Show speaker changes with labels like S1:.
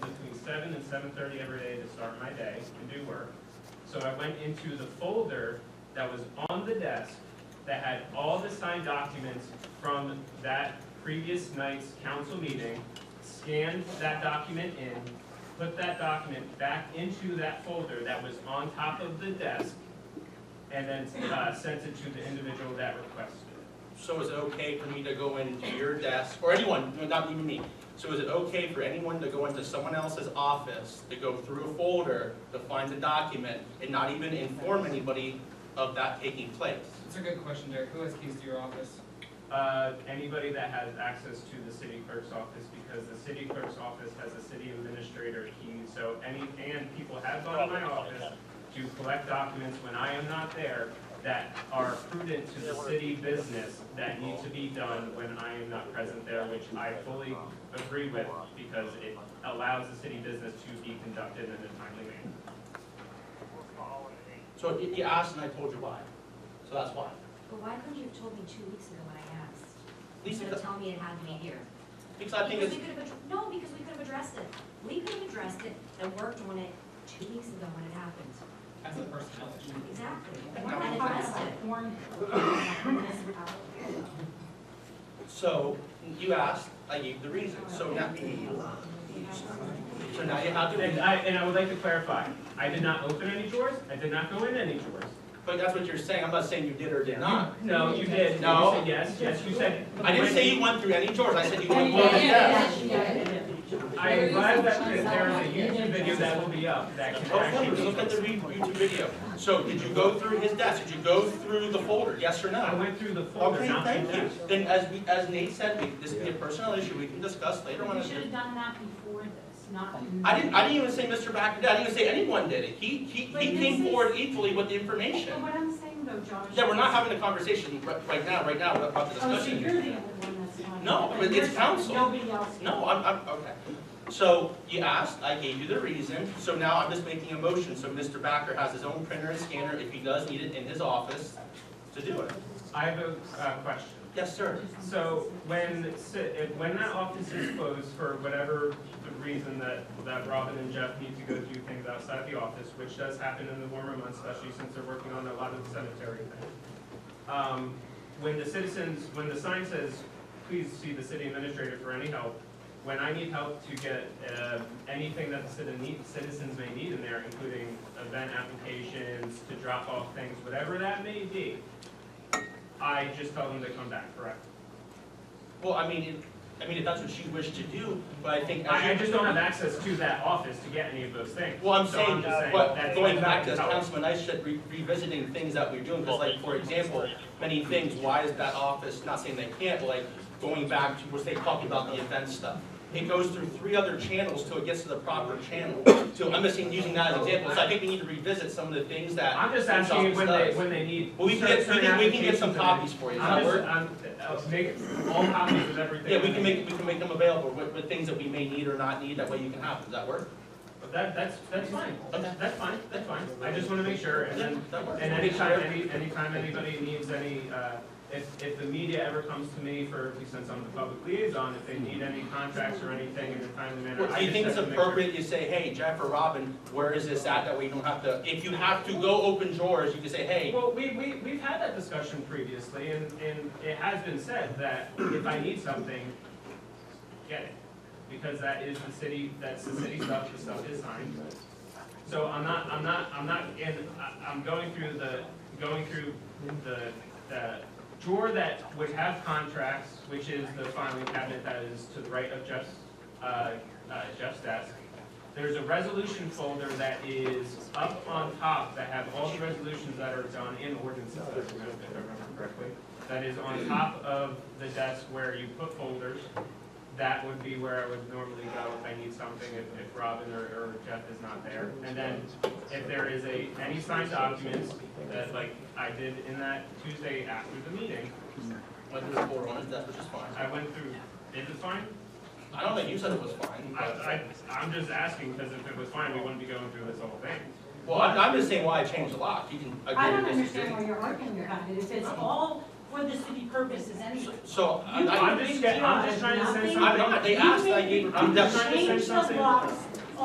S1: seven thirty every day to start my day and do work. So I went into the folder that was on the desk that had all the signed documents from that previous night's council meeting, scanned that document in, put that document back into that folder that was on top of the desk, and then, uh, sent it to the individual that requested it.
S2: So is it okay for me to go into your desk, or anyone, no, not even me? So is it okay for anyone to go into someone else's office, to go through a folder, to find the document, and not even inform anybody of that taking place?
S3: It's a good question, Derek. Who has keys to your office?
S1: Uh, anybody that has access to the city clerk's office, because the city clerk's office has a city administrator key, so any, and people have gone to my office to collect documents when I am not there that are prudent to the city business that need to be done when I am not present there, which I fully agree with, because it allows the city business to be conducted in a timely manner.
S2: So you you asked and I told you why, so that's why.
S4: But why couldn't you have told me two weeks ago when I asked?
S2: Lisa,
S4: Instead of telling me it had to be here.
S2: because I think
S4: Because
S2: it's,
S4: we could have, ad- no, because we could have addressed it. We could have addressed it and worked on it two weeks ago when it happened.
S3: As a personnel issue.
S4: Exactly.
S2: No.
S4: Why not address it?
S2: so you asked, I gave the reason, so now, so now you have
S1: And
S2: to,
S1: I, and I would like to clarify, I did not open any drawers, I did not go in any drawers.
S2: but that's what you're saying, I'm not saying you did or did not.
S1: No, you did.
S2: No.
S1: You said Yes, yes, you said.
S2: I didn't say you went through any doors, I said you went through
S1: Well,
S2: the desk.
S1: yes. I advise that there is a YouTube video that will be up that can
S2: Oh, folder,
S1: actually.
S2: look at the re- YouTube video. So did you go through his desk? Did you go through the folder, yes or
S1: I
S2: no?
S1: went through the folder,
S2: Okay,
S1: not the
S2: thank you.
S1: desk.
S2: Then as we, as Nate said, we, this could be a personnel issue we can discuss later on.
S5: You should have done that before this, not.
S2: I didn't, I didn't even say Mr. Backer did, I didn't even say anyone did it. He, he,
S5: But
S2: he
S5: this
S2: came
S5: is-
S2: forward equally with the
S5: But
S2: information.
S5: what I'm saying though, Josh.
S2: Yeah, we're not
S5: is-
S2: having a conversation right, right now, right now, about the
S5: Oh, so
S2: discussion.
S5: you're the only one that's not.
S2: No, but it's
S5: You're-
S2: council.
S5: Nobody else.
S2: No, I'm, I'm, okay. So you asked, I gave you the reason, so now I'm just making a motion, so Mr. Backer has his own printer and scanner if he does need it in his office to do it.
S1: I have a uh, question.
S2: Yes, sir.
S1: So when, si- if- when that office is closed for whatever reason that, that Robin and Jeff need to go do things outside the office, which does happen in the warmer months, especially since they're working on a lot of the cemetery things. Um, When the citizens, when the sign says, please see the city administrator for any help, when I need help to get uh, anything that the citi- need- citizens may need in there, including event applications, to drop off things, whatever that may be, I just tell them to come back, correct?
S2: Well, I mean, it- I mean, if that's what she wished to do, but I think.
S1: I, I just don't have access to that office to get any of those things.
S2: Well, I'm
S1: So
S2: saying,
S1: just saying
S2: but
S1: that's-
S2: going
S1: that's
S2: back
S1: not
S2: to
S1: how-
S2: Councilman Eichstadt re- revisiting things that we're doing, because like, for example, many things, why is that office, not saying they can't, but like, going back to, we're saying, talking about the event stuff. It goes through three other channels till it gets to the proper channel. So I'm just saying, using that as an example, so I think we need to revisit some of the things that.
S1: I'm just
S2: this
S1: asking you when they,
S2: office does.
S1: when they need.
S2: Well, we can get, we
S1: certain
S2: can, we can get
S1: applications
S2: some
S1: and-
S2: copies for you, does
S1: I'm
S2: that
S1: just,
S2: work?
S1: I'm, I'll make all copies of everything.
S2: Yeah, we can make, we can make them available with, with things that we may need or not need, that way you can have, them. does that work?
S1: But That, that's, that's fine,
S2: Okay.
S1: that's fine, that's fine, I just wanna make sure, and then,
S2: That works.
S1: and anytime, any, anytime anybody needs any, uh, if, if the media ever comes to me for, since I'm the public liaison, if they need any contracts or anything in a timely manner,
S2: Well,
S1: I
S2: do you
S1: just have
S2: think it's
S1: to make sure.
S2: appropriate you say, hey, Jeff or Robin, where is this at? That way you don't have to, if you have to go open drawers, you can say, hey,
S1: Well, we, we, we've had that discussion previously, and, and it has been said that if I need something, get it. Because that is the city, that's the city stuff, the stuff is signed. So I'm not, I'm not, I'm not, and I, I'm going through the, going through the, the drawer that would have contracts, which is the filing cabinet that is to the right of Jeff's, uh, uh, Jeff's desk. There's a resolution folder that is up on top that have all the resolutions that are done in ordinances, if I remember if I remember correctly. That is on top of the desk where you put folders. That would be where I would normally go if I need something, if, if Robin or, or Jeff is not there. And then if there is a, any signed documents that like I did in that Tuesday after the meeting,
S2: whether it's four on it, that's which is fine.
S1: I went through, is it fine?
S2: I don't know, you said it was fine,
S1: I,
S2: but,
S1: I, I'm just asking because if it was fine, we wouldn't be going through this whole thing.
S2: well, I'm, I'm just saying why I changed the lock. You can
S5: I
S2: agree
S5: don't
S2: or
S5: understand
S2: disagree.
S5: why you're arguing about it. If it's all for the city purposes anyway.
S2: So, I,
S5: You
S2: I,
S1: I'm just get- I'm just trying to send
S5: Nothing.
S1: something.
S2: I'm not, they asked, I gave, I'm
S1: I'm just
S2: definitely,
S1: trying to
S5: Change
S1: say
S5: the
S1: something.
S5: locks